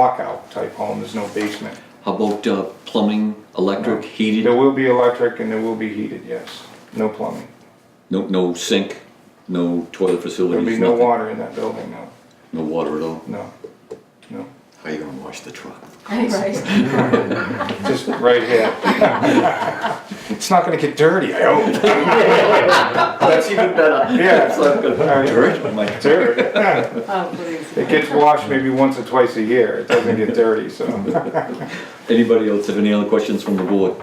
walkout type home, there's no basement. How about uh, plumbing, electric, There heated? will be electric and there will be heated, yes, no plumbing. No, no sink, no toilet There'll be facilities, no nothing? water in that building, no, No water at all? no, no, How you gonna wash the truck? Right. just right here. It's not gonna get dirty, I hope. That's even better. Yeah, Dirt, I'm like, dirt. Oh, please. It gets washed maybe once or twice a year, it doesn't get dirty, so. Anybody else have any other questions from the board?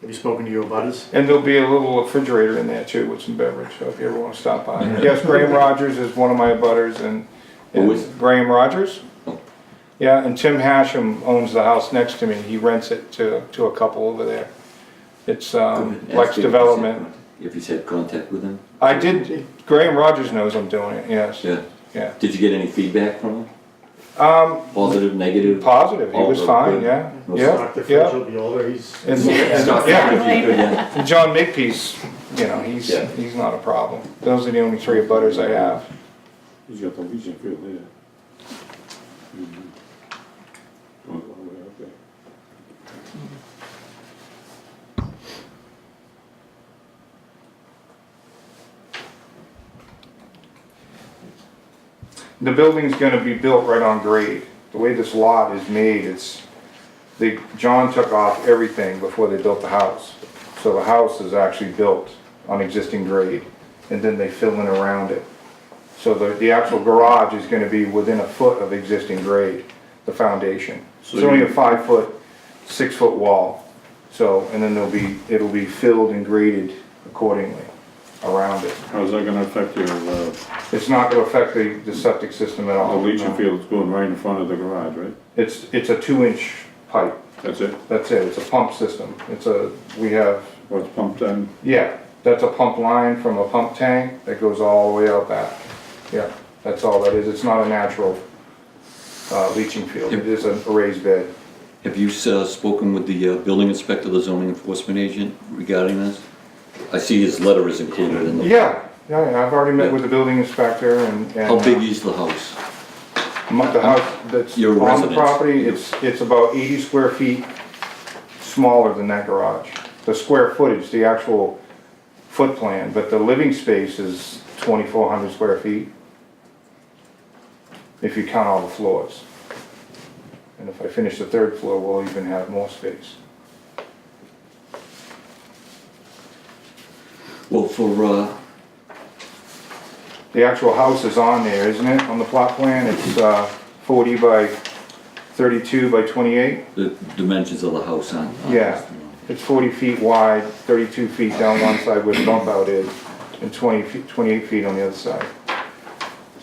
Have you spoken to your butters? And there'll be a little refrigerator in there too with some beverage, so if you ever wanna stop by. Yes, Graham Rogers is one of my butters and, Who is- and Graham Rogers? Oh. Yeah, and Tim Hashem owns the house next to me, he rents it to, to a couple over there. It's, um, Lex Ask him if he's had Development. con- If he's had contact with him? I did, Graham Rogers knows I'm doing it, yes, Yeah. yeah. Did you get any feedback from him? Um. Positive, negative? Positive, he Oh, was good. fine, yeah, No yeah, Stock the fridge yeah. will be over, he's. And- It's and- not yeah. negative, you could, yeah. And John Makepeace, you know, he's, Yeah. he's not a problem. Those are the only three butters I have. He's got the Legion field there. Mhm. Goes all the way up there. The building's gonna be built right on grade. The way this lot is made, it's, they, John took off everything before they built the house. So the house is actually built on existing grade, and then they fill in around it. So the, the actual garage is gonna be within a foot of existing grade, the foundation. It's only a five-foot, six-foot wall. So, and then there'll be, it'll be filled and graded accordingly around it. How's that gonna affect your, uh, It's not gonna affect the, the septic system at the all. Legion no. field's going right in front of the garage, right? It's, it's a two-inch pipe, That's it? that's it, it's a pump system, it's a, we have, What's pumped in? yeah, that's a pump line from a pump tank that goes all the way out back. Yeah, that's all that is, it's not a natural, uh, leaching field, it is a raised bed. Have you uh, spoken with the uh, building inspector, the zoning enforcement agent regarding this? I see his letter is included in the, Yeah, yeah, yeah, I've already met with the building inspector and. and, how big uh, is the house? mo- The house that's Your on the residence. property, it's, it's about eighty square feet smaller than that garage. The square footage, the actual foot plan, but the living space is twenty-four hundred square feet. If you count all the floors. And if I finish the third floor, we'll even have more space. Well, for, uh, The actual house is on there, isn't it, on the plot plan? It's, uh, forty by thirty-two by twenty-eight? the dimensions of the house uh, on. on- Yeah, it's forty feet wide, thirty-two feet down one side where the bump out is, and twenty feet, twenty-eight feet on the other side.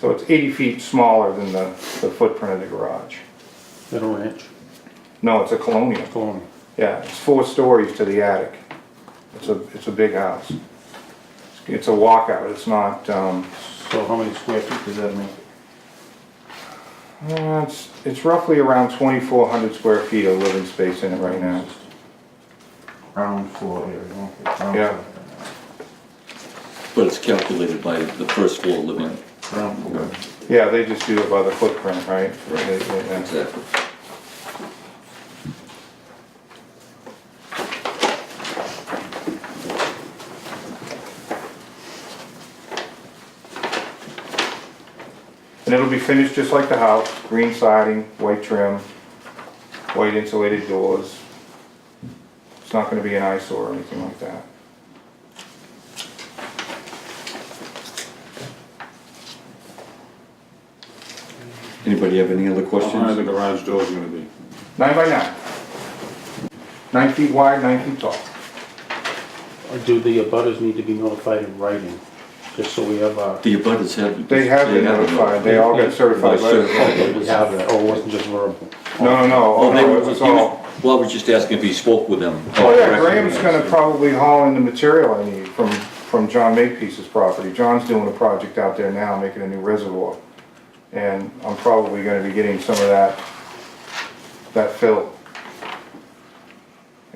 So it's eighty feet smaller than the, the footprint of the garage. At a ranch. No, it's a colonial, Colony. yeah, it's four stories to the attic. It's a, it's a big house. It's a walkout, it's not, um, So how many square feet does that make? uh, it's, it's roughly around twenty-four hundred square feet of living space in it right now. Ground floor area, okay. ground Yeah. But it's calculated by the first floor living. floor, Ground floor. Yeah, they just do it by the footprint, right? They- they- that's it. Exactly. And it'll be finished just like the house, green siding, white trim, white insulated doors. It's not gonna be an eyesore or anything like that. Anybody have any other How high are questions? the garage doors gonna be? Nine by nine. Nine feet wide, nine feet tall. Or do the abutters need to be notified in writing, just so we have a, The abutters have. They have been a notified, notice. they all got certified By certified letters. letter. we have that, or it wasn't just verbal? No, no, no, Well, oh, they no, were, it was he all. was, well, I was just asking if he spoke with them. Oh yeah, Graham's gonna probably haul in the material I need from, from John Makepeace's property. John's doing a project out there now, making a new reservoir. And I'm probably gonna be getting some of that, that fill.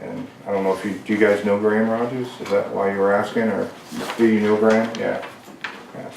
And I don't know if you, do you guys know Graham Rogers? Is that why you were asking, or do you know Graham? Yeah. yeah.